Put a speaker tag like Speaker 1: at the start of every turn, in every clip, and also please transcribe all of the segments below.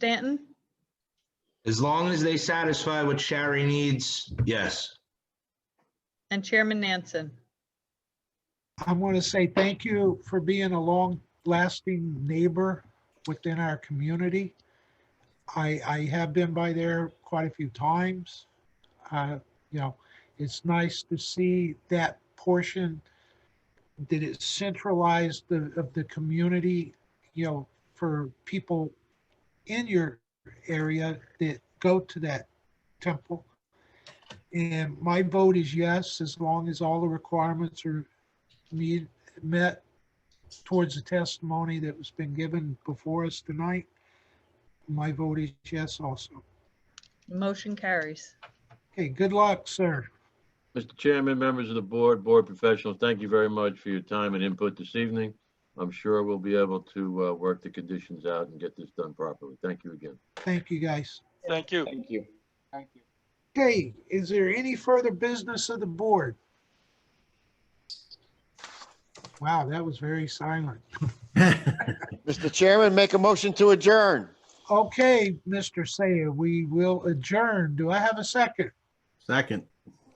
Speaker 1: Stanton?
Speaker 2: As long as they satisfy what Shari needs, yes.
Speaker 1: And Chairman Nansen?
Speaker 3: I want to say thank you for being a long-lasting neighbor within our community. I, I have been by there quite a few times. Uh, You know, it's nice to see that portion that is centralized the- of the community, you know, for people in your area that go to that temple. And my vote is yes, as long as all the requirements are meet, met towards the testimony that was been given before us tonight. My vote is yes also.
Speaker 1: Motion carries.
Speaker 3: Okay, good luck, sir.
Speaker 4: Mr. Chairman, members of the board, board professionals, thank you very much for your time and input this evening. I'm sure we'll be able to uh, work the conditions out and get this done properly. Thank you again.
Speaker 3: Thank you, guys.
Speaker 5: Thank you.
Speaker 6: Thank you. Thank you.
Speaker 3: Okay, is there any further business of the board? Wow, that was very silent.
Speaker 7: Mr. Chairman, make a motion to adjourn.
Speaker 3: Okay, Mr. Saya, we will adjourn. Do I have a second?
Speaker 8: Second.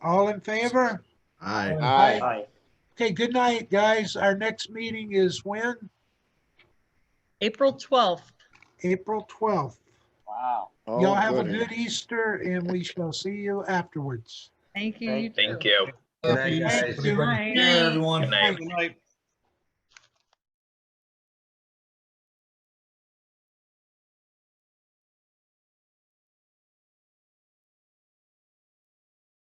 Speaker 3: All in favor?
Speaker 8: Aye.
Speaker 7: Aye.
Speaker 6: Aye.
Speaker 3: Okay, good night, guys. Our next meeting is when?
Speaker 1: April 12th.
Speaker 3: April 12th.
Speaker 6: Wow.
Speaker 7: Oh,
Speaker 3: Y'all have a
Speaker 7: goody.
Speaker 3: good Easter and we shall see you afterwards.
Speaker 1: Thank you. you
Speaker 9: Thank
Speaker 1: too.
Speaker 9: you.
Speaker 2: Good night,
Speaker 3: Thank
Speaker 2: guys.
Speaker 3: you.
Speaker 1: Bye.
Speaker 9: everyone.
Speaker 5: Good night.